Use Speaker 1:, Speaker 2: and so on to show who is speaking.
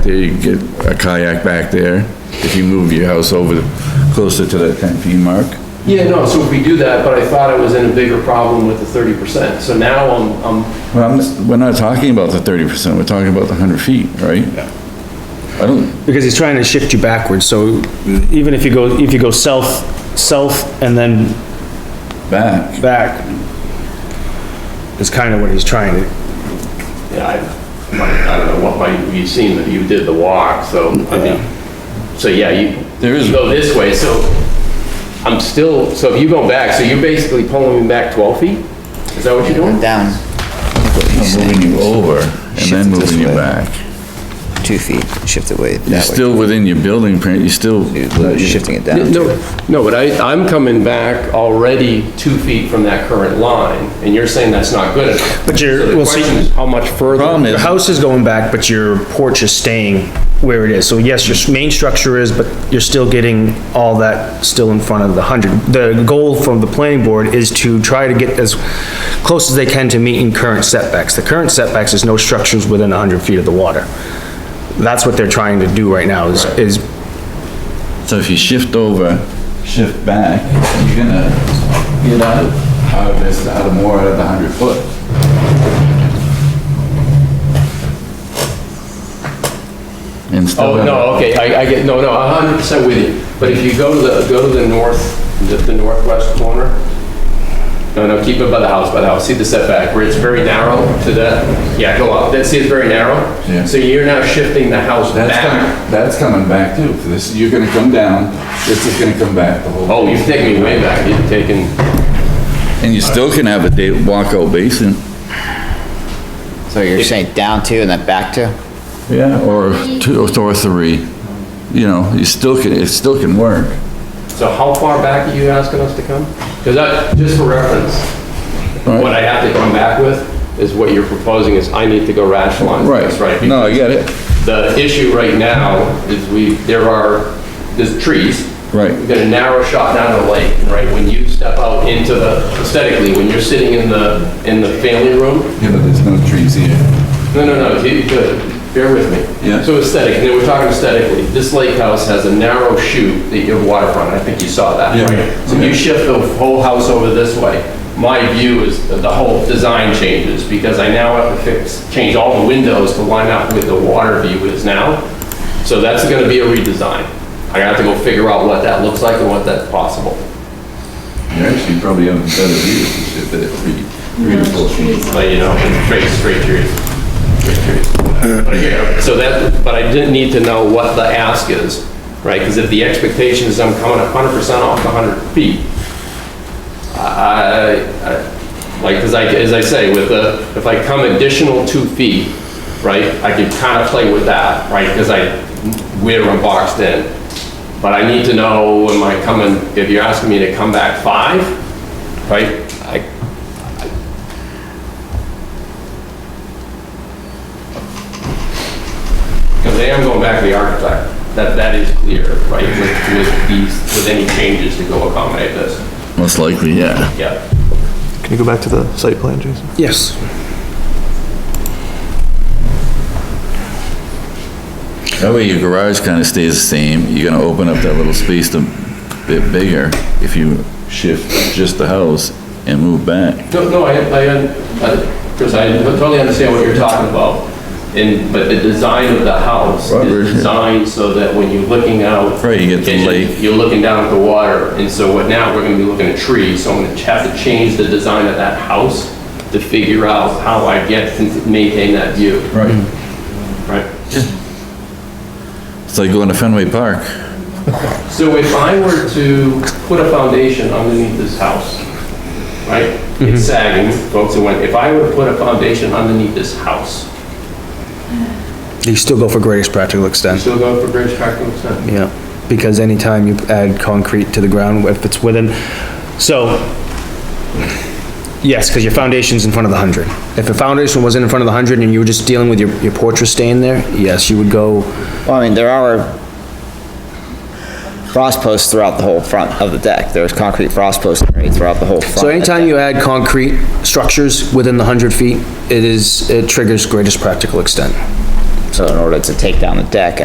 Speaker 1: There you get a kayak back there, if you move your house over the- closer to that 10 feet mark.
Speaker 2: Yeah, no, so if we do that, but I thought I was in a bigger problem with the thirty percent, so now I'm, I'm,
Speaker 1: Well, I'm, not- we're not talking about the 30%, we're talking about the 100 feet, right? I don't,
Speaker 3: Because he's trying to shift you backwards, so even if you go, if you go south, south and then
Speaker 1: back,
Speaker 3: back, is kind of what he's trying to,
Speaker 2: yeah, I, my- I don't know what my, you've seen, that you did the walk, so, I mean, so yeah, you,
Speaker 1: There is-
Speaker 2: you go this way, so I'm still, so if you go back, so you're basically pulling me back twelve feet? Is that what you're doing?
Speaker 4: down
Speaker 1: I'm moving you over and
Speaker 4: Shift it
Speaker 1: then
Speaker 4: this
Speaker 1: moving you
Speaker 4: way.
Speaker 1: back.
Speaker 4: two feet, shift the weight
Speaker 1: You're
Speaker 4: that way.
Speaker 1: still within your building print, you're still,
Speaker 4: You're Shifting it down.
Speaker 2: No, no, but I, I'm coming back already two feet from that current line, and you're saying that's not good enough.
Speaker 3: But you're-
Speaker 2: So the
Speaker 3: well, see-
Speaker 2: question is How much further?
Speaker 1: Problem is-
Speaker 3: your house is going back, but your porch is staying where it is. So yes, your s- main structure is, but you're still getting all that still in front of the hundred. The goal from the planning board is to try to get as close as they can to meeting current setbacks. The current setbacks is no structures within hundred feet of the water. That's what they're trying to do right now, is, is
Speaker 1: so if you shift over, shift back, you're gonna get out of, out of this, out of more out of the 100 foot. Instead
Speaker 2: Oh,
Speaker 1: of-
Speaker 2: no, okay, I, I get, no, no, I'm hundred percent with you, but if you go to the, go to the north, the, the northwest corner, no, no, keep it by the house, by the house, see the setback, where it's very narrow to that, yeah, go up, that, see it's very narrow?
Speaker 1: Yeah.
Speaker 2: So you're now shifting the house
Speaker 1: That's
Speaker 2: back.
Speaker 1: coming, that's coming back too. This, you're gonna come down, this is gonna come back the whole.
Speaker 2: Oh, you've taken me way back, you've taken,
Speaker 1: And you still can have a day, walkout basin.
Speaker 4: So you're saying down two and then back two?
Speaker 1: Yeah. Or two, or three, you know, you still can, it still can work.
Speaker 2: so how far back are you asking us to come? Because I, just for reference,
Speaker 1: Alright.
Speaker 2: what I have to come back with is what you're proposing is I need to go rationalize this, right?
Speaker 1: No, I get it.
Speaker 2: The issue right now is we, there are, there's trees.
Speaker 1: Right.
Speaker 2: We've got a narrow shot down the lake, and right? When you step out into the, aesthetically, when you're sitting in the, in the family room,
Speaker 1: Yeah, but there's no trees here.
Speaker 2: no, no, no, you could, bear with me.
Speaker 1: Yeah.
Speaker 2: So aesthetic, and then we're talking aesthetically, this lake house has a narrow chute that you have waterfront, I think you saw that,
Speaker 1: Yeah.
Speaker 2: right? So you shift the whole house over this way, my view is that the whole design changes, because I now have to fix, change all the windows to line up with the water view is now. So that's gonna be a redesign. I have to go figure out what that looks like and what that's possible.
Speaker 1: You actually probably have a better view if you did it three, three to four feet.
Speaker 2: But, you know, straight, straight trees. Straight trees. But, you know, So that, but I didn't need to know what the ask is, right? Because if the expectation is I'm coming hundred percent off the hundred feet, I, I, like, as I, as I say, with the, if I come additional two feet, right, I can kind of play with that, right? Because I, where I'm boxed in. But I need to know, am I coming, if you're asking me to come back five, right? I, Because they am going back to the architect, that, that is clear, right, with, with these, with any changes to go accommodate this,
Speaker 1: Most likely, yeah.
Speaker 2: yeah.
Speaker 5: Can you go back to the site plan, Jason?
Speaker 3: Yes.
Speaker 1: That way your garage kind of stays the same. You're gonna open up that little space a bit bigger if you shift just the house and move back.
Speaker 2: No, no, I, I, uh, Chris, I totally understand what you're talking about, and, but the design of the house
Speaker 1: Robert, yeah.
Speaker 2: is designed so that when you're looking out.
Speaker 1: Right, you get the
Speaker 2: and
Speaker 1: lake.
Speaker 2: You're looking down at the water, and so what now, we're gonna be looking at trees, so I'm gonna have to change the design of that house to figure out how I get to maintain that view,
Speaker 1: Right.
Speaker 2: right?
Speaker 1: It's like going to Fenway Park.
Speaker 2: So if I were to put a foundation underneath this house, right? It's sagging, folks, it went, if I were to put a foundation underneath this house,
Speaker 3: You still go for greatest practical
Speaker 2: you
Speaker 3: extent.
Speaker 2: still go for bridge cracking extent?
Speaker 3: Yeah, because anytime you add concrete to the ground, if it's within, so, yes, because your foundation's in front of the hundred. If a foundation wasn't in front of the hundred and you were just dealing with your, your porch was staying there, yes, you would go,
Speaker 4: Well, I mean, there are frost posts throughout the whole front of the deck. There's concrete frost posts right throughout the whole front.
Speaker 3: so anytime you add concrete structures within the hundred feet, it is, it triggers greatest practical extent.
Speaker 4: So in order to take down the deck,